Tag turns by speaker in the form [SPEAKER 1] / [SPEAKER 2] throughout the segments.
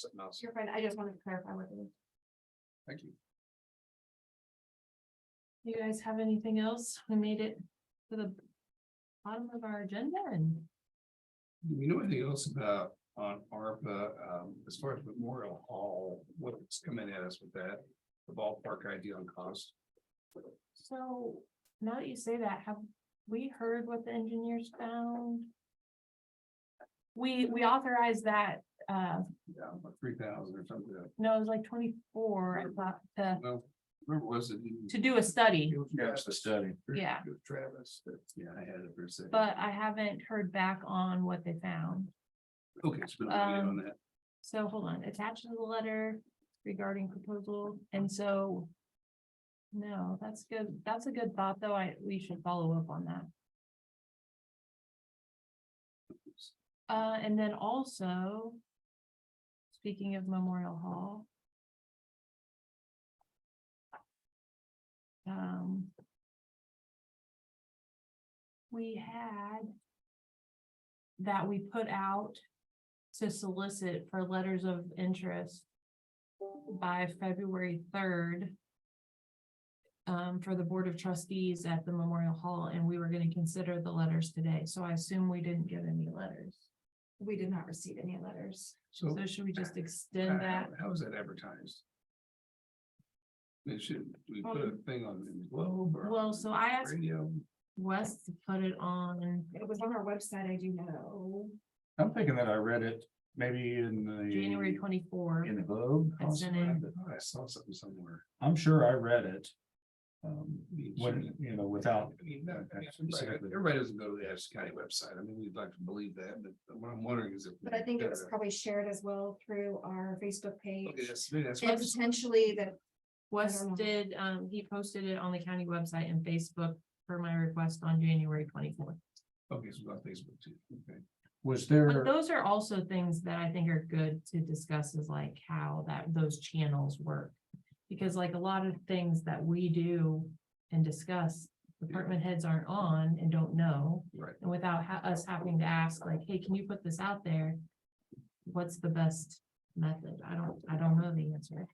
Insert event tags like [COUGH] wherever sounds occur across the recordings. [SPEAKER 1] something else.
[SPEAKER 2] You're fine. I just wanted to clarify with you.
[SPEAKER 1] Thank you.
[SPEAKER 3] You guys have anything else? We made it to the bottom of our agenda and
[SPEAKER 1] Do we know anything else about on ARPA, um, as far as Memorial Hall, what's coming at us with that? The ballpark idea on cost?
[SPEAKER 3] so now that you say that, have we heard what the engineers found? We, we authorized that, uh,
[SPEAKER 1] Yeah, about three thousand or something.
[SPEAKER 3] no, it was like twenty-four, I thought, to,
[SPEAKER 1] Well, where was it?
[SPEAKER 3] to do a study.
[SPEAKER 1] It was Travis.
[SPEAKER 4] the study.
[SPEAKER 3] Yeah.
[SPEAKER 1] Travis, but yeah, I had it for a second.
[SPEAKER 3] But I haven't heard back on what they found.
[SPEAKER 1] Okay, it's been a minute on
[SPEAKER 3] um,
[SPEAKER 1] that.
[SPEAKER 3] So hold on, attached to the letter regarding proposal, and so. No, that's good, that's a good thought, though, I, we should follow up on that. Uh, and then also. Speaking of Memorial Hall. Um. We had. That we put out to solicit for letters of interest by February third um, for the Board of Trustees at the Memorial Hall, and we were gonna consider the letters today, so I assume we didn't get any letters.
[SPEAKER 2] We did not receive any letters.
[SPEAKER 1] So
[SPEAKER 3] So should we just
[SPEAKER 1] how-
[SPEAKER 3] extend that?
[SPEAKER 1] how is that advertised? It should, we
[SPEAKER 3] Well,
[SPEAKER 1] put a thing on in the Globe or?
[SPEAKER 3] Um, Well,
[SPEAKER 1] on
[SPEAKER 3] so I asked
[SPEAKER 1] Radio.
[SPEAKER 3] Wes to put it on
[SPEAKER 2] It was on our website, I do know.
[SPEAKER 4] I'm thinking that I read it maybe in the.
[SPEAKER 3] January twenty-four.
[SPEAKER 4] In the Globe.
[SPEAKER 3] I sent
[SPEAKER 4] possibly.
[SPEAKER 3] it.
[SPEAKER 1] I thought Oh, I saw something somewhere.
[SPEAKER 4] I'm sure I read it. Um,
[SPEAKER 1] I mean,
[SPEAKER 4] when, you know, without,
[SPEAKER 1] I mean, that- that's- Everybody doesn't go to the Ashley County website. I mean, we'd like to believe that, but what I'm wondering is if.
[SPEAKER 2] But I think it was
[SPEAKER 1] Uh,
[SPEAKER 2] probably shared as well through our Facebook
[SPEAKER 1] Okay,
[SPEAKER 2] page.
[SPEAKER 1] that's, maybe that's.
[SPEAKER 2] And potentially that,
[SPEAKER 3] Wes
[SPEAKER 2] know.
[SPEAKER 3] did, um, he posted it on the county website and Facebook for my request on January twenty-fourth.
[SPEAKER 1] Okay, so about Facebook too. Okay.
[SPEAKER 4] was
[SPEAKER 3] But
[SPEAKER 4] there,
[SPEAKER 3] those are also things that I think are good to discuss is like how that, those channels work. Because like a lot of things that we do and discuss, department heads aren't on and don't know.
[SPEAKER 1] Right.
[SPEAKER 3] And without ha- us having to ask like, hey, can you put this out there? What's the best method? I don't, I don't know the answer.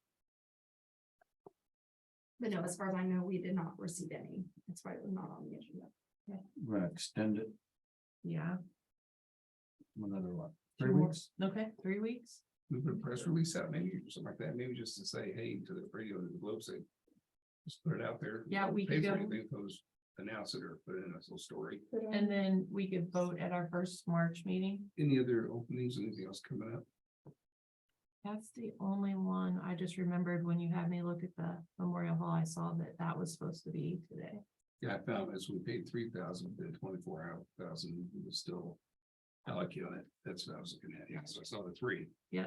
[SPEAKER 2] but no, as far as I know, we did not receive any. That's why it was not on the agenda.
[SPEAKER 4] we're gonna extend it
[SPEAKER 3] Yeah,
[SPEAKER 4] another one, three
[SPEAKER 3] Two more.
[SPEAKER 4] weeks?
[SPEAKER 3] okay, three weeks?
[SPEAKER 1] We put a press release out maybe or something like that, maybe just to say, hey, to the radio and the Globe say. Just put it out there.
[SPEAKER 3] Yeah, we
[SPEAKER 1] Pay
[SPEAKER 3] could
[SPEAKER 1] for
[SPEAKER 3] go,
[SPEAKER 1] anything, those announce it or put it in a little story.
[SPEAKER 2] Mm.
[SPEAKER 3] and then we could vote at our first March meeting.
[SPEAKER 1] Any other openings, anything else coming up?
[SPEAKER 3] That's the only one I just remembered when you had me look at the Memorial Hall, I saw that that was supposed to be today.
[SPEAKER 1] Yeah, I found as we paid three thousand, the twenty-four hour thousand was still allocated. on it. That's what I was looking at. Yeah, so I saw the three.
[SPEAKER 3] Yeah.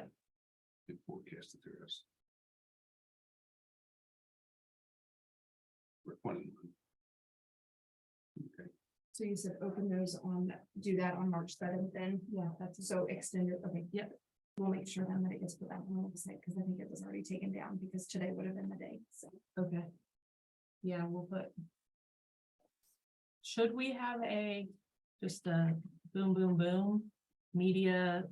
[SPEAKER 1] It forecasted there is. We're twenty. Okay,
[SPEAKER 2] So you said open those on, do that on March seventh then? Yeah, that's so extended, okay.
[SPEAKER 3] Yep.
[SPEAKER 2] We'll make sure then that it gets put out on the website because I think it was already taken down because today would have been the day, so.
[SPEAKER 3] Okay. Yeah, we'll put. Should we have a, just a boom, boom, boom, media,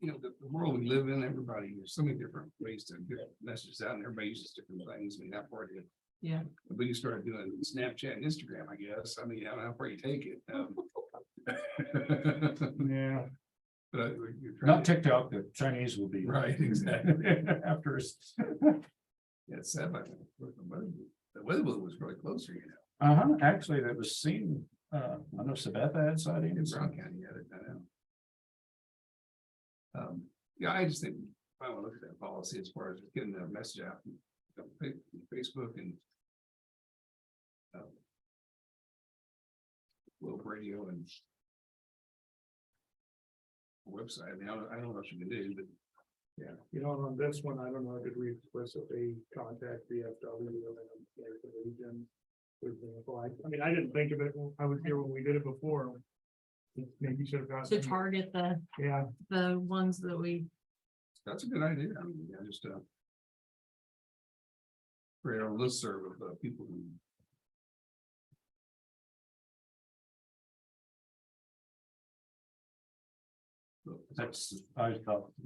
[SPEAKER 1] you know, the, the world we live in, everybody, there's so many different ways to get messages out and everybody uses different things. I mean, that part of it.
[SPEAKER 3] Yeah.
[SPEAKER 1] But you started doing Snapchat and Instagram, I guess. I mean, I don't know where you take it.
[SPEAKER 3] [LAUGHS]
[SPEAKER 1] [LAUGHS] um.
[SPEAKER 4] Yeah,
[SPEAKER 1] But I- we- you're trying
[SPEAKER 4] not
[SPEAKER 1] to,
[SPEAKER 4] TikTok, the Chinese will be. [LAUGHS]
[SPEAKER 1] Right, exactly.
[SPEAKER 4] After us.
[SPEAKER 1] yeah, it's sad, but the weather, the weather was really close here, you know,
[SPEAKER 4] Uh-huh, actually, that was seen, uh, I know Sabetha had sighting.
[SPEAKER 1] in Brown County, had it, I know. Um, yeah, I just think, I want to look at that policy as far as getting the message out, you know, Fa- Facebook and. um, Globe radio and. Website, I mean, I don't, I don't know what you can do, but
[SPEAKER 5] Yeah, you know, and on this one, I don't know, I could read explicitly contact VFW and then there's the region. for example. I- I mean, I didn't think of it, when I was here when we did it before. Maybe should have
[SPEAKER 3] to
[SPEAKER 5] gotten,
[SPEAKER 3] target the,
[SPEAKER 5] yeah,
[SPEAKER 3] the ones that we,
[SPEAKER 1] That's a good idea. I mean, I just, uh. Create a listserv of uh, people who. Look,
[SPEAKER 4] That's, I thought